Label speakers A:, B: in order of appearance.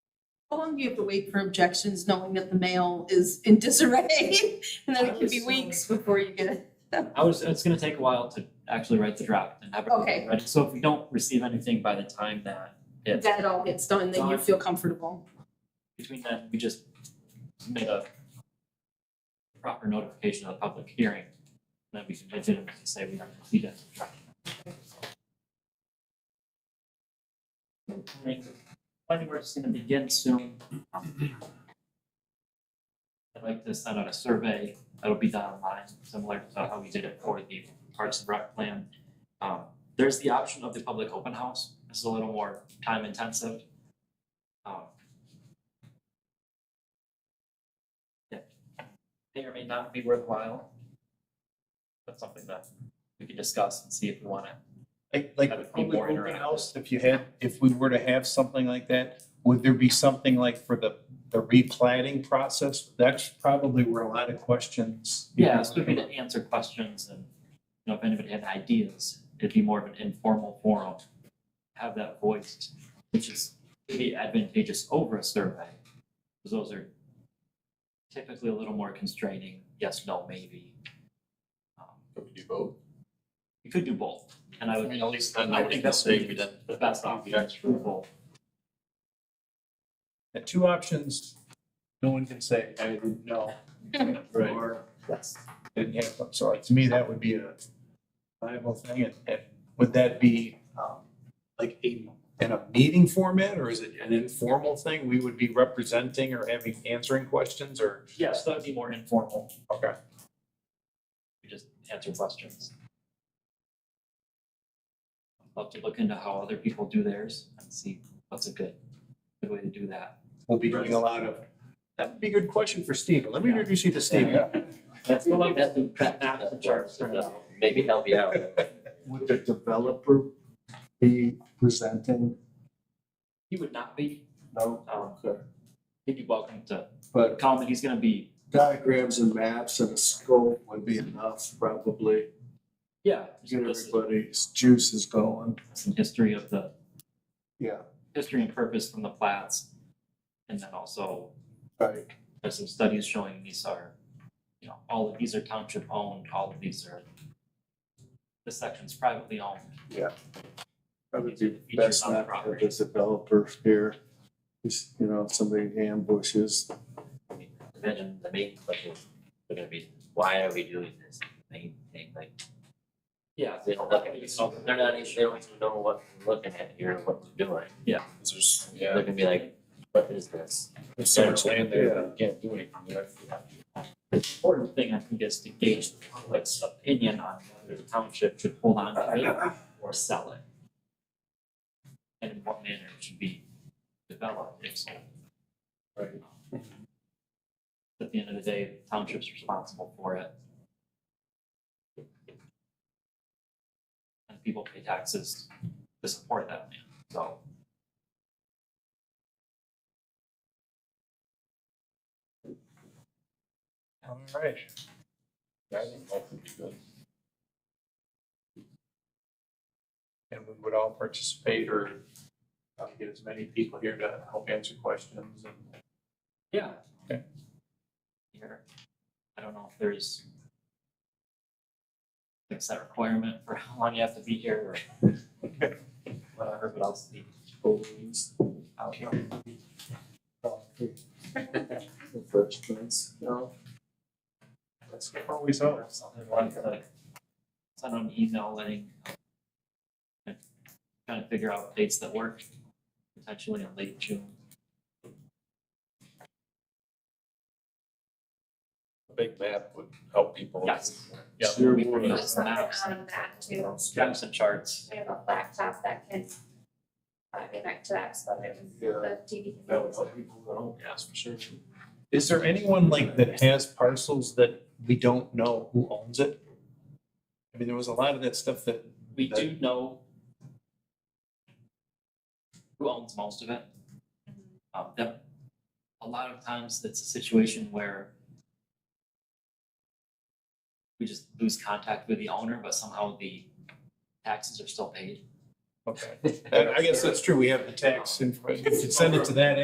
A: How long do you have to wait for objections, knowing that the mail is in disarray? And then it could be weeks before you get it.
B: I was, it's gonna take a while to actually write the draft and have it
A: Okay.
B: ready. So if we don't receive anything by the time that it's
A: That all gets done, then you feel comfortable.
B: between then, we just made a proper notification of the public hearing. And then we can legitimately say we have completed the draft. I think Planning board's gonna begin soon. I'd like to send out a survey that'll be done online, similar to how we did it for the Parks and Rec plan. Um, there's the option of the public open house. This is a little more time intensive. Um, may or may not be worthwhile. That's something that we can discuss and see if we want to.
C: Like, like
B: That
C: the
B: would be
C: public
B: more
C: open
B: interactive.
C: house, if you had, if we were to have something like that, would there be something like for the, the replanning process? That's probably where a lot of questions.
B: Yeah, this would be to answer questions and, you know, if anybody had ideas, it'd be more of an informal forum. Have that voiced, which is maybe advantageous over a survey, because those are typically a little more constraining, yes, no, maybe. Um,
D: Could we do both?
B: You could do both, and I
D: I
B: would,
D: mean, at least then
B: I
D: nobody can
B: think that would
D: say
B: be
D: we didn't.
B: the best option is both.
C: The two options, no one can say, I didn't know.
D: Right.
C: Or didn't happen. So like, to me, that would be a viable thing. And, and would that be, um, like a, in a meeting format or is it an informal thing? We would be representing or having, answering questions or?
B: Yes, that would be more informal,
C: Okay.
B: we just answer questions. Love to look into how other people do theirs and see what's a good, good way to do that.
C: We'll be doing a lot of, that'd be a good question for Steve. Let me introduce you to Steve.
B: That's what I'm, that's the, that's the charts.
E: Maybe help you out.
F: Would the developer be presenting?
B: He would not be,
F: No,
B: um,
F: Okay.
B: he'd be welcome to
F: but
B: comment, he's gonna be,
F: diagrams and maps and a scope would be enough probably.
B: yeah,
F: Get
B: this is
F: everybody's juices going.
B: some history of the,
F: Yeah,
B: history and purpose from the plats. And then also
F: right.
B: there's some studies showing these are, you know, all of these are township owned, all of these are, this section's privately owned.
F: That would be
B: Features
F: best
B: on the
F: not to have
B: property.
F: a developer here. Just, you know, somebody ambushes.
E: Imagine the main question is gonna be, why are we doing this main thing? Like,
B: Yeah.
E: they don't, look at it. So they're not, even- they don't even know what we're looking at here, and what we're doing.
D: There's,
E: They're
D: yeah,
E: gonna be like, what is this?
D: there's so much land there, that you can't do anything with.
B: Important thing I think is to gauge the public's opinion on whether the township should hold on to it or sell it. And in what manner it should be developed, if so.
D: Right.
B: At the end of the day, the township's responsible for it. And people pay taxes to support that land, so.
C: All right.
D: I think both would be good.
C: And we would all participate or uh, get as many people here to help answer questions and.
B: Yeah.
C: Okay.
B: Here, I don't know if there's like set requirement for how long you have to be here or whatever, but I'll see. Out here.
F: Refreshments, you know?
C: That's always on.
B: Something like that. Send out an email letting kind of figure out dates that work, potentially in late June.
D: A big map would help people.
B: Yes.
D: Yeah.
B: Sure, we can
G: Put
B: use
G: something
B: maps,
G: on that too.
B: maps and charts.
G: I have a laptop that can uh, connect to that, so that it
F: Yeah.
G: was the TV.
F: That would help people at home.
B: Yes, for sure.
C: Is there anyone like that has parcels that we don't know who owns it? I mean, there was a lot of that stuff that,
B: We do know who owns most of it. Um, that, a lot of times it's a situation where we just lose contact with the owner, but somehow the taxes are still paid.
C: okay, I I guess that's true. We have the tax information. You could send it to that